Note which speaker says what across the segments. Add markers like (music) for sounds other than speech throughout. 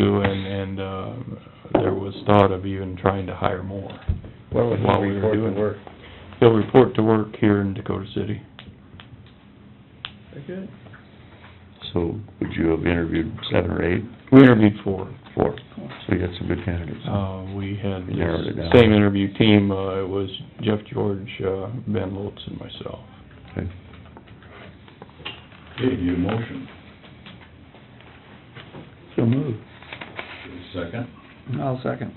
Speaker 1: uh, was thought of even trying to hire more.
Speaker 2: When was
Speaker 1: While
Speaker 2: the
Speaker 1: we were
Speaker 2: report
Speaker 1: doing
Speaker 2: to
Speaker 1: it.
Speaker 2: work?
Speaker 1: He'll report to work here in Dakota City.
Speaker 2: Very good.
Speaker 3: So would you have interviewed seven or eight?
Speaker 1: We interviewed four.
Speaker 3: Four. So you had some good candidates.
Speaker 1: Uh, we had
Speaker 3: You narrowed it down.
Speaker 1: the same interview team, uh, it was Jeff George, uh, Ben Lutz and myself.
Speaker 3: Okay.
Speaker 4: Okay, need a motion,
Speaker 3: So moved.
Speaker 4: second,
Speaker 2: I'll second.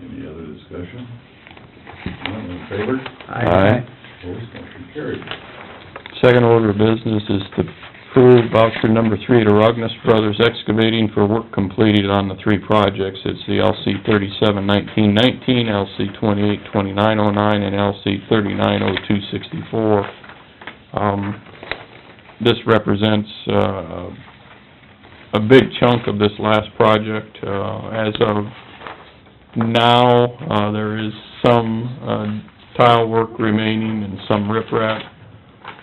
Speaker 4: any other discussion? None in favor,
Speaker 3: Aye.
Speaker 4: opposed, motion carried.
Speaker 1: Second order of business is to approve voucher number three to Rognus Brothers Excavating for work completed on the three projects. It's the LC thirty-seven nineteen nineteen, LC twenty-eight twenty-nine oh nine, and LC thirty-nine oh two sixty-four. Um, this represents, uh, a big chunk of this last project. Uh, as of now, uh, there is some, uh, tile work remaining and some riprap.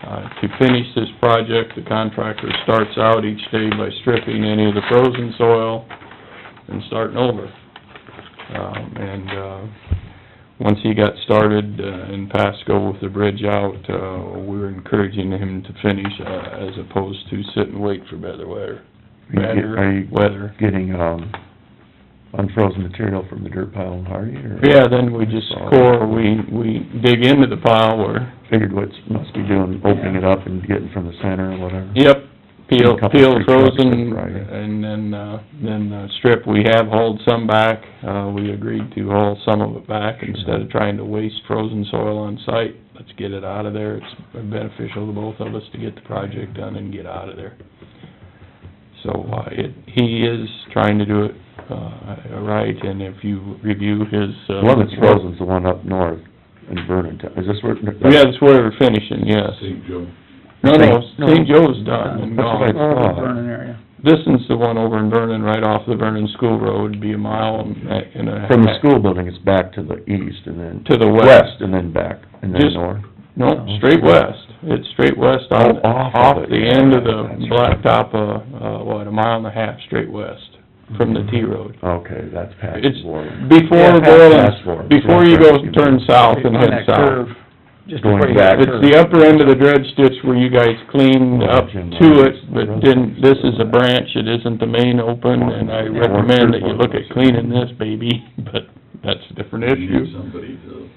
Speaker 1: Uh, To finish this project, the contractor starts out each day by stripping any of the frozen soil and starting over. Um, And uh, once he got started uh, in Pasco with the bridge out, uh, we were encouraging him to finish uh, as opposed to sit and wait for better weather.
Speaker 3: Are
Speaker 1: Better
Speaker 3: you
Speaker 1: weather.
Speaker 3: getting, um, unfrozen material from the dirt pile in Hardy, or?
Speaker 1: Yeah, then we just core, we, we dig into the pile where,
Speaker 3: Figured what must be doing, opening it up and getting from the center or whatever?
Speaker 1: Yep, peel,
Speaker 3: A couple
Speaker 1: peel
Speaker 3: tree trucks this
Speaker 1: frozen,
Speaker 3: Friday.
Speaker 1: and then, uh, then uh, strip, we have hauled some back, uh, we agreed to haul some of it back,
Speaker 3: Sure.
Speaker 1: instead of trying to waste frozen soil on site, let's get it out of there, it's beneficial to both of us to get the project done and get out of there. So, uh, it, he is trying to do it, uh, right, and if you review his, uh...
Speaker 3: The one that's frozen's the one up north in Vernon, is this where?
Speaker 1: Yeah, that's where we're finishing, yes.
Speaker 4: St. Joe,
Speaker 1: No, no,
Speaker 3: No.
Speaker 1: St. Joe's done and
Speaker 3: That's
Speaker 1: gone.
Speaker 3: what I
Speaker 2: Oh,
Speaker 3: thought.
Speaker 2: Vernon area.
Speaker 1: This is the one over in Vernon, right off the Vernon School Road, be a mile and a- and a half.
Speaker 3: From the school building, it's back to the east and then...
Speaker 1: To the west.
Speaker 3: and then back, and then
Speaker 1: Just-
Speaker 3: north.
Speaker 1: No, straight west. It's straight west on,
Speaker 3: Oh, off of
Speaker 1: off
Speaker 3: it.
Speaker 1: the end of the
Speaker 3: That's right.
Speaker 1: blacktop, uh, uh, what, a mile and a half straight west from the T road.
Speaker 3: Okay, Mm-hmm. that's past
Speaker 1: It's
Speaker 3: Warren.
Speaker 1: before
Speaker 2: Yeah, past-
Speaker 3: past
Speaker 1: Boylan,
Speaker 3: Warren.
Speaker 1: before you go
Speaker 3: Yeah.
Speaker 1: turn south and
Speaker 2: On
Speaker 1: head
Speaker 2: that
Speaker 1: south.
Speaker 2: curve, just
Speaker 3: Going
Speaker 2: before you
Speaker 3: back.
Speaker 2: get
Speaker 1: It's the upper end of the dredge ditch where you guys cleaned
Speaker 3: Well,
Speaker 1: up
Speaker 3: Jim,
Speaker 1: to
Speaker 3: I-
Speaker 1: it, but didn't, this is a branch, it isn't the main open, and I
Speaker 3: Yeah.
Speaker 1: recommend that you look at cleaning this baby, (laughs) but that's a different
Speaker 4: you
Speaker 1: issue.
Speaker 4: need somebody to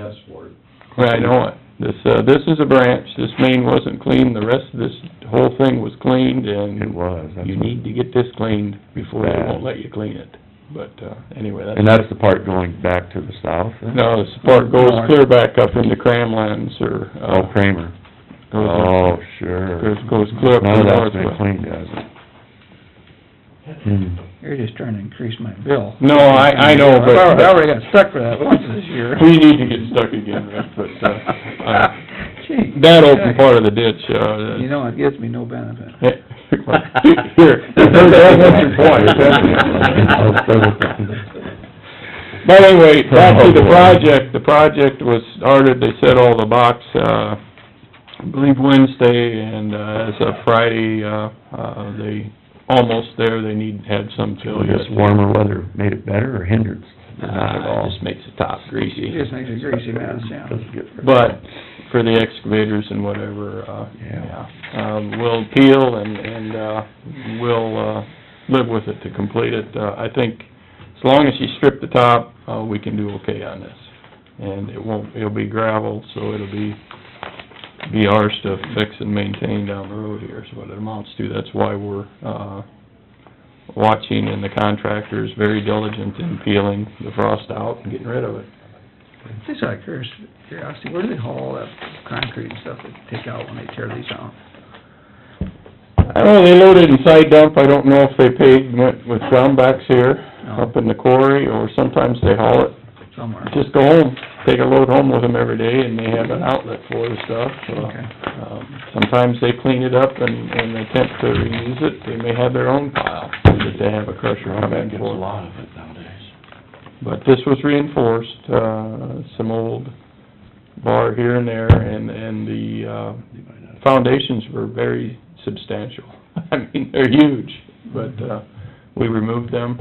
Speaker 4: ask for it.
Speaker 1: Well, I know it. This, uh, this is a branch, this main wasn't cleaned, the rest of this whole thing was cleaned,
Speaker 3: It
Speaker 1: and
Speaker 3: was, that's
Speaker 1: you
Speaker 3: what-
Speaker 1: need to get this cleaned before they
Speaker 3: Bad.
Speaker 1: won't let you clean it. But, uh, anyway,
Speaker 3: And
Speaker 1: that's,
Speaker 3: that's the part going back to the south? then?
Speaker 1: no, the part goes clear back up into Cramlands, or,
Speaker 3: Oh,
Speaker 1: uh,
Speaker 3: Kramer.
Speaker 1: goes up-
Speaker 3: Oh, sure.
Speaker 1: goes- goes clear up to the
Speaker 3: None of that's been
Speaker 1: northwest.
Speaker 3: cleaned, has it? Hmm.
Speaker 2: You're just trying to increase my bill.
Speaker 1: No, I, I know,
Speaker 2: I already- I
Speaker 1: but
Speaker 2: already got stuck for that once this year.
Speaker 1: (laughs) we need to get stuck again, Rick, but, uh, I-
Speaker 2: (laughs)
Speaker 1: that open part of the ditch, uh,
Speaker 2: You know, it gives me no benefit.
Speaker 1: (laughs) Here,
Speaker 3: (laughs)
Speaker 1: that was your (laughs)
Speaker 2: (laughs)
Speaker 1: point. But anyway, back
Speaker 2: Oh,
Speaker 1: to the project, the project was started, they set all the box, uh, I believe Wednesday, and, uh, as of Friday, uh, uh, they, almost there, they need, had some fill yet.
Speaker 3: Just warmer weather made it better or hindered? Not at
Speaker 1: Uh,
Speaker 3: all.
Speaker 1: it just makes the top greasy.
Speaker 2: It just makes a greasy mess, yeah.
Speaker 3: Doesn't get very-
Speaker 1: But for the excavators and whatever, uh,
Speaker 3: Yeah.
Speaker 1: yeah, um, we'll peel and, and, uh, we'll, uh, live with it to complete it. Uh, I think as long as you strip the top, uh, we can do okay on this. And it won't, it'll be gravel, so it'll be, be ours to fix and maintain down the road here is what it amounts to. That's why we're, uh, watching and the contractor's very diligent in peeling the frost out and getting rid of it.
Speaker 2: Just out of curious- curiosity, where do they haul all that concrete and stuff that they take out when they tear these out?
Speaker 1: I don't know, they load it in side dump, I don't know if they paid, went with ground backs here,
Speaker 2: No.
Speaker 1: up in the quarry, or sometimes they haul it,
Speaker 2: Somewhere.
Speaker 1: just go home, take a load home with them every day, and they have an outlet for the stuff, so.
Speaker 2: Okay.
Speaker 1: um, Sometimes they clean it up and, and attempt to reuse it, they may have their own pile, that they have a crusher
Speaker 3: Ground
Speaker 1: come
Speaker 3: man
Speaker 1: in
Speaker 3: gets a
Speaker 1: for.
Speaker 3: lot of it nowadays.
Speaker 1: But this was reinforced, uh, some old bar here and there, and, and the, uh,
Speaker 3: You might not-
Speaker 1: foundations were (laughs) very substantial. I mean, they're huge, but, uh, we removed them,